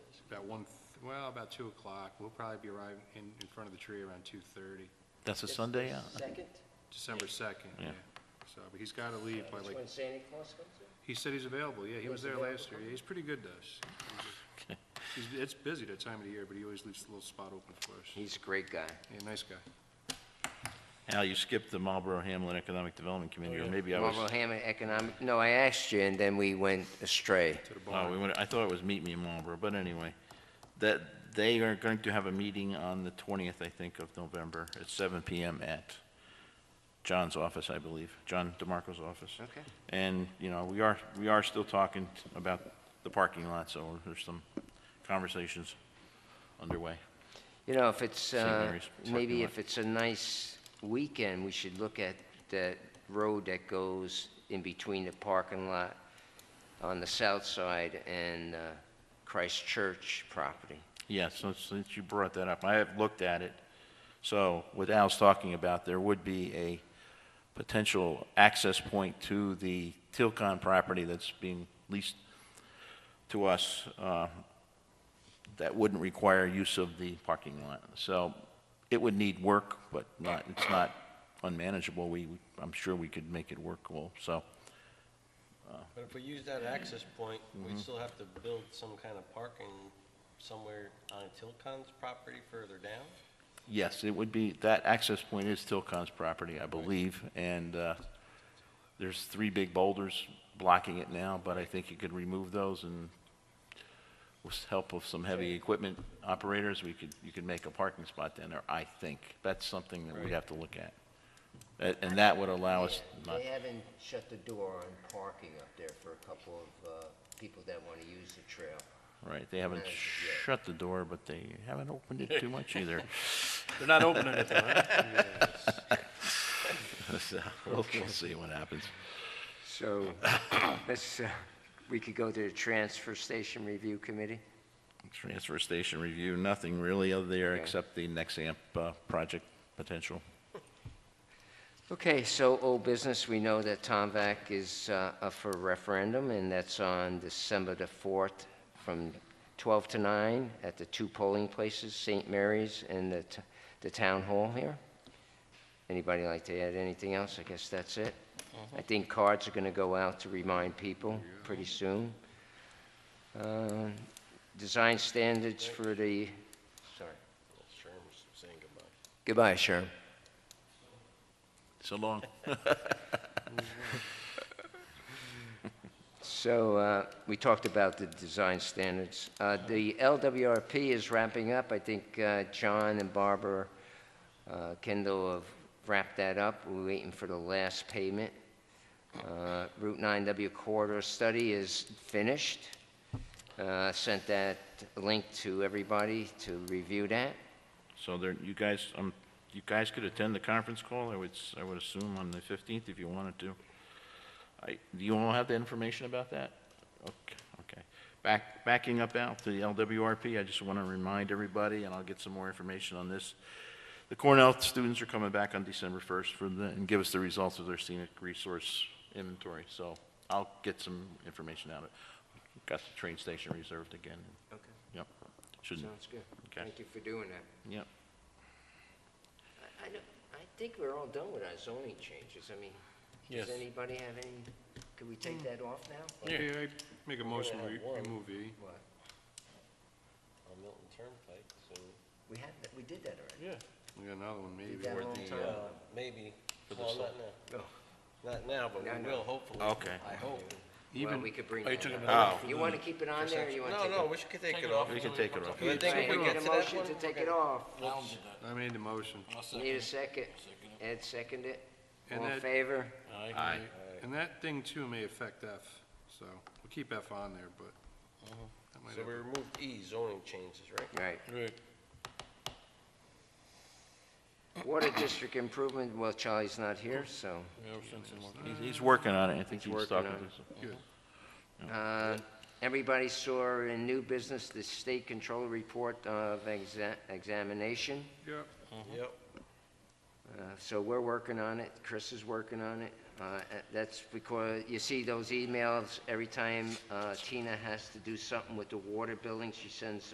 about one, well, about two o'clock. We'll probably be arriving in, in front of the tree around two thirty, That's a Sunday, yeah? Second? December second, yeah. Yeah. So, but he's gotta leave by That's like, when Santa Claus comes in? he said he's available, yeah, he was He's there available. last year. He's pretty good to us. Okay. He's, it's busy that time of the year, but he always leaves a little spot open for us. He's a great guy. Yeah, nice guy. Al, you skipped the Marlboro Hamlin Economic Development Committee, or maybe I was, Oh, Marlboro Hammond Economic, no, I asked you, and then we went astray. To the oh, we barn. went, I thought it was Meet Me in Marlboro, but anyway. That, they are going to have a meeting on the 20th, I think, of November, at 7 PM at John's office, I believe, John DeMarco's office. Okay. And, you know, we are, we are still talking about the parking lot, so there's some conversations underway. You know, if it's, St. uh, Mary's parking maybe lot. if it's a nice weekend, we should look at that road that goes in between the parking lot on the south side and uh, Christ Church property. Yeah, so since you brought that up, I have looked at it. So what Al's talking about, there would be a potential access point to the Tilcon property that's being leased to us uh, that wouldn't require use of the parking lot. So it would need work, but not, it's not unmanageable. We, I'm sure we could make it workable, so. But if we use that access point, we still have to build some kind of parking somewhere on Tilcon's property further down? Yes, it would be, that access point is Tilcon's property, I believe, and uh, there's three big boulders blocking it now, but I think you could remove those and with help of some heavy equipment operators, we could, you could make a parking spot down there, I think. That's something that we'd have to look at. A- And that would allow us, not- They haven't shut the door on parking up there for a couple of uh, people that want to use the trail. right, they haven't shut the door, but they haven't opened it too much either. They're not opening it though, huh? So, We'll we'll see what happens. So, let's, uh, we could go to the Transfer Station Review Committee? Transfer station review, nothing really other there Okay. except the Nexamp uh, project potential. Okay, so old business, we know that Tom Vac is uh, up for referendum, and that's on December the 4th from 12 to 9 at the two polling places, St. Mary's and the t- the Town Hall here. Anybody like to add anything else? I guess that's it. Mm-hmm. I think cards are going to go out to remind people pretty soon. Um, Design standards for the, sorry. Sherm's saying goodbye. Goodbye, Sherm. So long. So uh, we talked about the design standards. Uh, The LWRP is wrapping up. I think uh, John and Barbara uh, Kendall have wrapped that up. We're waiting for the last payment. Uh, Route 9W corridor study is finished. Uh, Sent that link to everybody to review that. So there, you guys, um, you guys could attend the conference call, I would, s- I would assume on the 15th if you wanted to. I, do you all have the information about that? Okay, okay. Back, backing up out to the LWRP, I just want to remind everybody, and I'll get some more information on this. The Cornell students are coming back on December 1st for the, and give us the results of their scenic resource inventory, so I'll get some information out of it. Got the train station reserved again, Okay. yep. Shouldn't, Sounds good. Okay. Thank you for doing that. yep. I- I don't- I think we're all done with our zoning changes. I mean, does Yes. anybody have any, could we take that off now? Okay, I make a motion, we have one. remove E. What? On Milton Turnpike, so, We had, that- we did that already. Yeah. We got another one, maybe. Did that Or a long the, time uh, ago. uh, maybe, For the well, sol- not now. Not now, but No, we no. will hopefully. Okay. I hope. Well, Even, we could bring Oh, you that took up. it off. You want to keep it on there, or you want to No, take it? no, we should take it off. We can take it off. I think Right, if we we get need a to that motion to one. take it off. I made the motion. Need a second. Ed second it. And All in Ed- favor? Aye. And that thing too may affect F, so we'll keep F on there, but. that might So we have- removed E, zoning changes, right? Right. Right. Water district improvement, well, Charlie's not here, so. He's- He's working on it, I think He's he's working talking on to it. some- Good. Uh, Everybody saw in new business the state control report of exa- examination. Yep. Yep. Uh, So we're working on it, Chris is working on it. Uh, uh, That's because, you see those emails, every time uh, Tina has to do something with the water billing, she sends